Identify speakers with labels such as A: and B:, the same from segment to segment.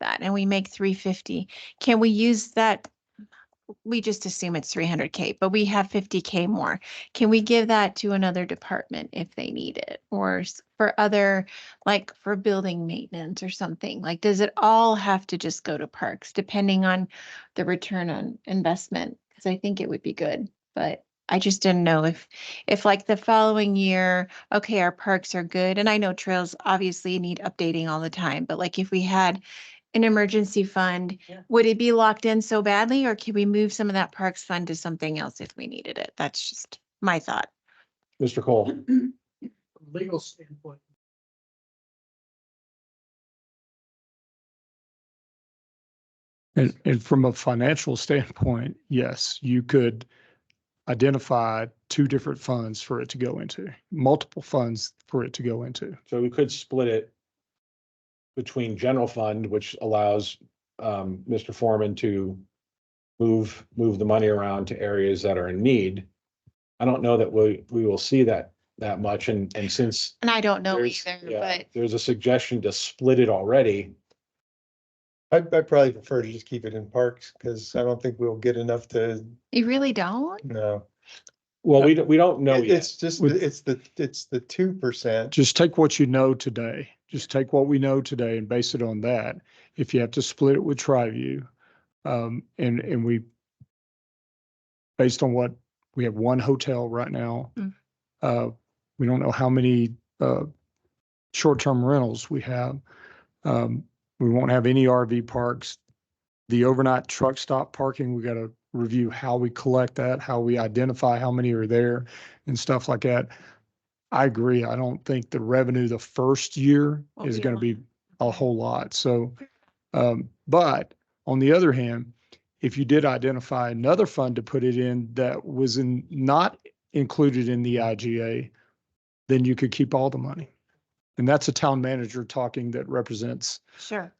A: that and we make three fifty, can we use that? We just assume it's three hundred K, but we have fifty K more. Can we give that to another department if they need it? Or s- for other, like for building maintenance or something? Like, does it all have to just go to parks depending on the return on investment? Cause I think it would be good, but I just didn't know if, if like the following year, okay, our parks are good, and I know trails obviously need updating all the time, but like if we had an emergency fund,
B: Yeah.
A: would it be locked in so badly, or could we move some of that parks fund to something else if we needed it? That's just my thought.
C: Mr. Cole,
B: legal standpoint.
D: And, and from a financial standpoint, yes, you could identify two different funds for it to go into, multiple funds for it to go into.
C: so we could split it between general fund, which allows um, Mr. Foreman to move, move the money around to areas that are in need. I don't know that we, we will see that, that much. And, and since
A: And I don't know
C: there's,
A: either,
C: yeah,
A: but
C: there's a suggestion to split it already.
E: I, I probably prefer to just keep it in parks, because I don't think we'll get enough to,
A: you really don't?
E: no.
C: Well, we don't, we don't know
E: It-
C: yet.
E: It's just,
D: With-
E: it's the, it's the two percent.
D: Just take what you know today. Just take what we know today and base it on that. If you have to split it with TriView, um, and, and we, based on what, we have one hotel right now.
A: Mm.
D: Uh, we don't know how many, uh, short-term rentals we have. Um, we won't have any RV parks. The overnight truck stop parking, we gotta review how we collect that, how we identify how many are there and stuff like that. I agree. I don't think the revenue the first year
A: Won't
D: is
A: be a
D: gonna
A: lot.
D: be a whole lot. So, um, but on the other hand, if you did identify another fund to put it in that was in, not included in the IGA, then you could keep all the money. And that's a town manager talking that represents
A: Sure.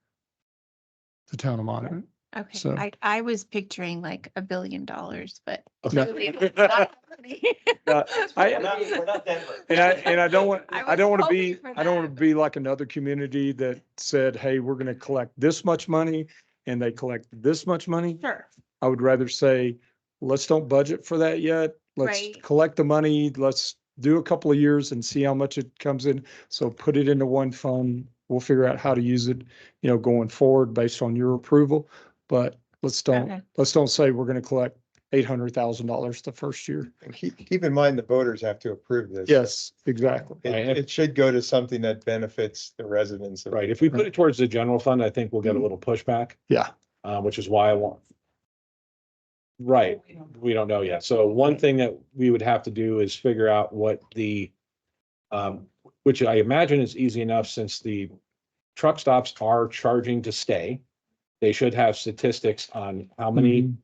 D: the town of Monument.
A: Okay,
D: So-
A: I, I was picturing like a billion dollars, but.
D: Okay.
A: clearly it's not happening.
D: Uh, I-
A: We're not- we're not Denver.
D: And I, and I don't want,
A: I
D: I don't
A: was
D: want to be,
A: hoping for
D: I don't want
A: that,
D: to be like another community that said, hey, we're going to collect this much money and they collect this much money.
A: Sure.
D: I would rather say, let's don't budget for that yet. Let's
A: Right.
D: collect the money. Let's do a couple of years and see how much it comes in. So put it into one fund. We'll figure out how to use it, you know, going forward based on your approval. But let's
A: Okay.
D: don't, let's don't say we're going to collect eight hundred thousand dollars the first year.
E: And keep, keep in mind, the voters have to approve this. so
D: Yes, exactly.
C: Right, if-
E: It, it should go to something that benefits the residents. of-
C: Right. If we put it towards the general fund, I think we'll get a little pushback.
D: Yeah.
C: Uh, which is why I want. Right. we don't know yet. So one thing that we would have to do is figure out what the, um, which I imagine is easy enough since the truck stops are charging to stay. They should have statistics on how
D: Mm-hmm.
C: many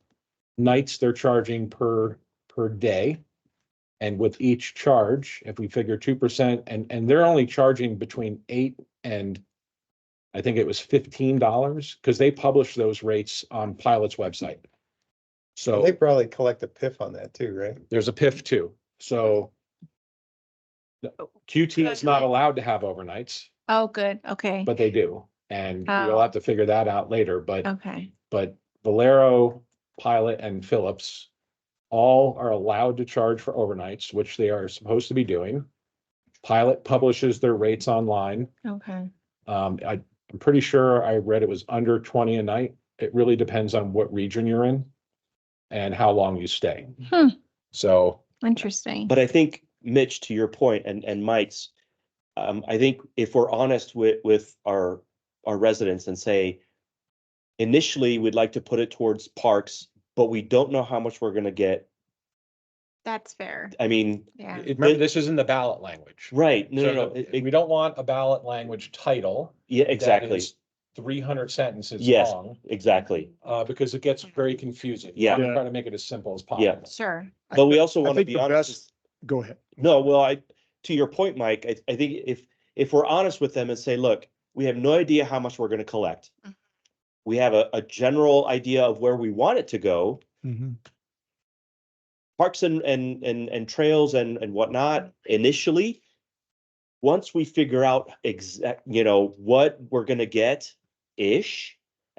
C: nights they're charging per, per day. And with each charge, if we figure two percent and, and they're only charging between eight and I think it was fifteen dollars because they publish those rates on Pilot's website. So.
E: They probably collect a PIF on that too, right?
C: There's a PIF too, so. the- QT is not allowed to have overnights,
A: Oh, good, okay,
C: but they do, and
A: Oh.
C: we'll have to figure that out later, but,
A: okay.
C: but Valero, Pilot and Phillips. All are allowed to charge for overnights, which they are supposed to be doing. Pilot publishes their rates online.
A: Okay,
C: Um, I, I'm pretty sure I read it was under twenty a night. It really depends on what region you're in. And how long you stay.
A: Hmm.
C: So.
A: interesting.
F: But I think Mitch, to your point and, and Mike's, um, I think if we're honest with, with our, our residents and say, initially, we'd like to put it towards parks, but we don't know how much we're gonna get.
A: That's fair,
F: I mean,
A: yeah.
C: Remember, this is in the ballot language.
F: right, no,
C: So
F: no, no,
C: the-
F: it-
C: We
F: it-
C: don't want a ballot language title.
F: yeah, exactly,
C: Three hundred sentences
F: Yes.
C: long,
F: exactly.
C: uh, because it gets very confusing.
F: Yeah.
C: Try to make it as simple as
F: Yeah.
C: possible.
A: Sure,
D: I
F: But we also
D: I
F: want to
D: think
F: be
D: the
F: honest.
D: best, go ahead.
F: No, well, I, to your point, Mike, I, I think if, if we're honest with them and say, look, we have no idea how much we're gonna collect.
A: Mhm.
D: Mm-hmm.
F: We have a, a general idea of where we want it to go. Parks and, and, and, and trails and, and whatnot initially. Once we figure out exact, you know, what we're gonna get-ish,